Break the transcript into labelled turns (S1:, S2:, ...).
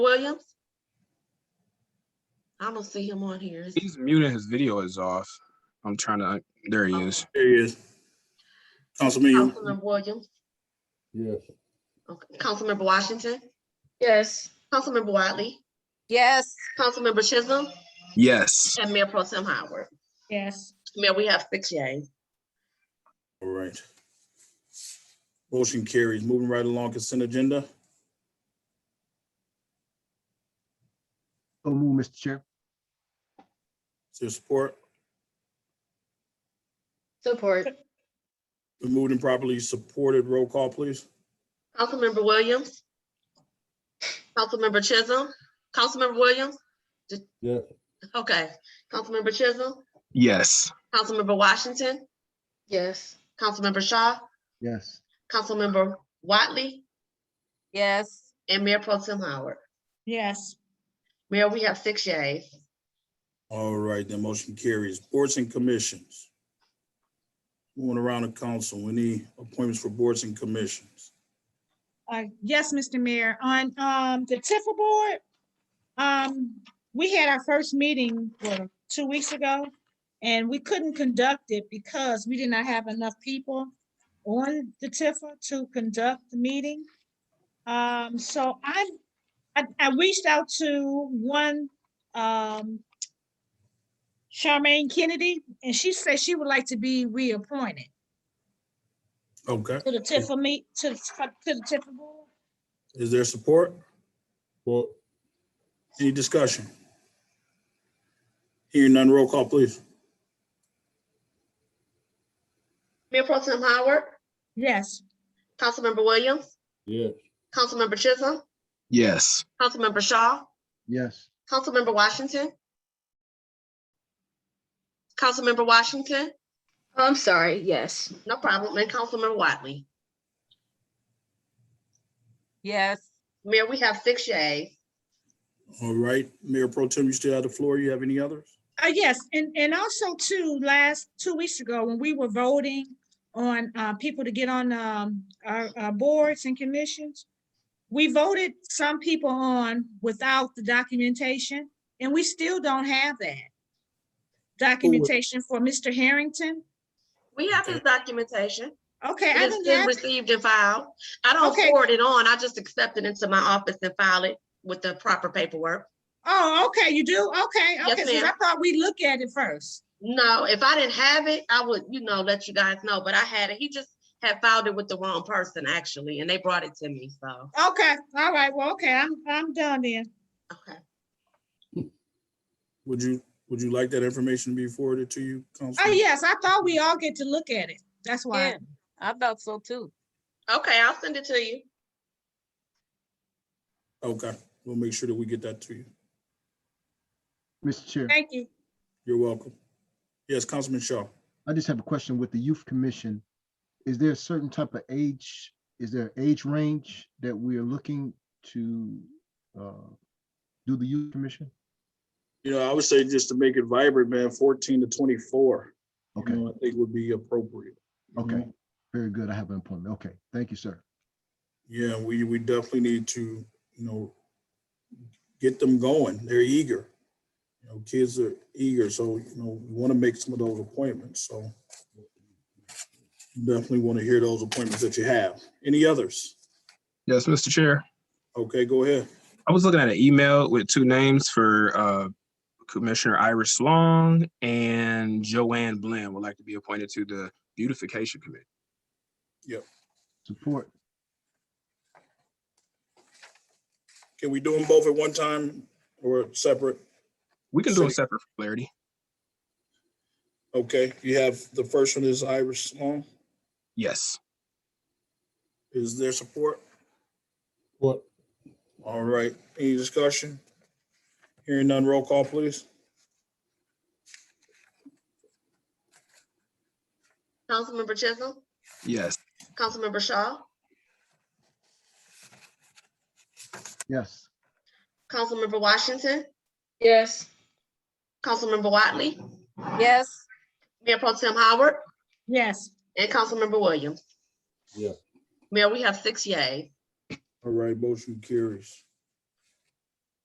S1: Williams? I don't see him on here. Is-
S2: He's muted. His video is off. I'm trying to. There he is.
S3: There he is. Councilman,
S1: Councilmember Williams,
S4: Yes.
S1: okay, Councilmember Washington,
S5: Yes.
S1: Councilmember Wiley,
S5: Yes.
S1: Councilmember Chisholm,
S2: Yes.
S1: and Mayor Pro Tem Howard.
S5: Yes.
S1: Mayor, we have six yays.
S3: all right. Motion carries. Moving right along consent agenda.
S6: So move, Mr. Chair.
S3: Is there support?
S5: Support.
S3: We moved and properly supported. Roll call, please.
S1: Councilmember Williams, Councilmember Chisholm, Councilmember Williams? Did-
S4: Yes.
S1: Okay, Councilmember Chisholm,
S2: Yes.
S1: Councilmember Washington,
S5: Yes.
S1: Councilmember Shaw,
S6: Yes.
S1: Councilmember Wiley,
S5: Yes.
S1: and Mayor Pro Tem Howard.
S5: Yes.
S1: Mayor, we have six yays.
S3: All right, then motion carries. Boards and commissions. Moving around the council, any appointments for boards and commissions?
S7: Uh, yes, Mr. Mayor, on, um, the Tifa board, um, we had our first meeting, what, two weeks ago? And we couldn't conduct it because we did not have enough people on the Tifa to conduct the meeting. Um, so I, I, I reached out to one, um, Charmaine Kennedy, and she said she would like to be reappointed
S3: Okay,
S7: to the Tifa meet, to, the to the Tifa board.
S3: is there support?
S4: Well,
S3: Any discussion? Hearing none, roll call, please.
S1: Mayor Pro Tem Howard,
S7: Yes.
S1: Councilmember Williams,
S4: yes.
S1: Councilmember Chisholm,
S2: Yes.
S1: Councilmember Shaw,
S6: Yes.
S1: Councilmember Washington. Councilmember Washington,
S5: I'm sorry, yes.
S1: no problem, and Councilmember Wiley.
S5: Yes.
S1: Mayor, we have six yays.
S3: All right, Mayor Pro Tem, you still have the floor. You have any others?
S7: Uh, yes, and, and also too, last, two weeks ago, when we were voting on, uh, people to get on, um, our, our boards and commissions, we voted some people on without the documentation, and we still don't have that documentation for Mr. Harrington.
S1: We have his documentation.
S7: Okay, I
S1: It's
S7: didn't
S1: been
S7: have,
S1: received and filed. I don't
S7: Okay.
S1: forward it on. I just accept it into my office and file it with the proper paperwork.
S7: oh, okay, you do? Okay,
S1: Yes,
S7: okay, so I
S1: ma'am.
S7: thought we look at it first.
S1: No, if I didn't have it, I would, you know, let you guys know, but I had it. He just had filed it with the wrong person actually, and they brought it to me, so,
S7: Okay, all right, well, okay, I'm, I'm done then.
S1: okay.
S3: Would you, would you like that information to be forwarded to you,
S7: Oh,
S3: Councilman?
S7: yes, I thought we all get to look at it. That's why.
S5: Yeah, I thought so too.
S1: Okay, I'll send it to you.
S3: Okay, we'll make sure that we get that to you.
S6: Mr. Chair,
S7: Thank you.
S3: You're welcome. Yes, Councilman Shaw.
S6: I just have a question with the youth commission. Is there a certain type of age, is there an age range that we are looking to uh, do the youth commission?
S3: You know, I would say just to make it vibrant, man, fourteen to twenty-four, you
S6: Okay,
S3: know, I think would be appropriate. you
S6: okay,
S3: know?
S6: very good. I have an appointment. Okay, thank you, sir.
S3: Yeah, we, we definitely need to, you know, get them going. They're eager. You know, kids are eager, so, you know, we want to make some of those appointments, so. Definitely want to hear those appointments that you have. Any others?
S2: Yes, Mr. Chair.
S3: Okay, go ahead.
S2: I was looking at an email with two names for uh, Commissioner Iris Long and Joanne Blinn would like to be appointed to the Beautification Committee.
S6: Support.
S3: Can we do them both at one time or separate?
S2: We can do it
S3: City-
S2: separate for clarity.
S3: Okay, you have, the first one is Iris Long.
S2: Yes.
S3: Is there support?
S4: What?
S3: All right, any discussion? Hearing none, roll call, please.
S1: Councilmember Chisholm,
S2: Yes.
S1: Councilmember Shaw,
S6: Yes.
S1: Councilmember Washington,
S5: Yes.
S1: Councilmember Wiley,
S5: Yes.
S1: Mayor Pro Tem Howard,
S7: Yes.
S1: and Councilmember Williams.
S4: Yeah.
S1: Mayor, we have six yays.
S3: All right, motion carries.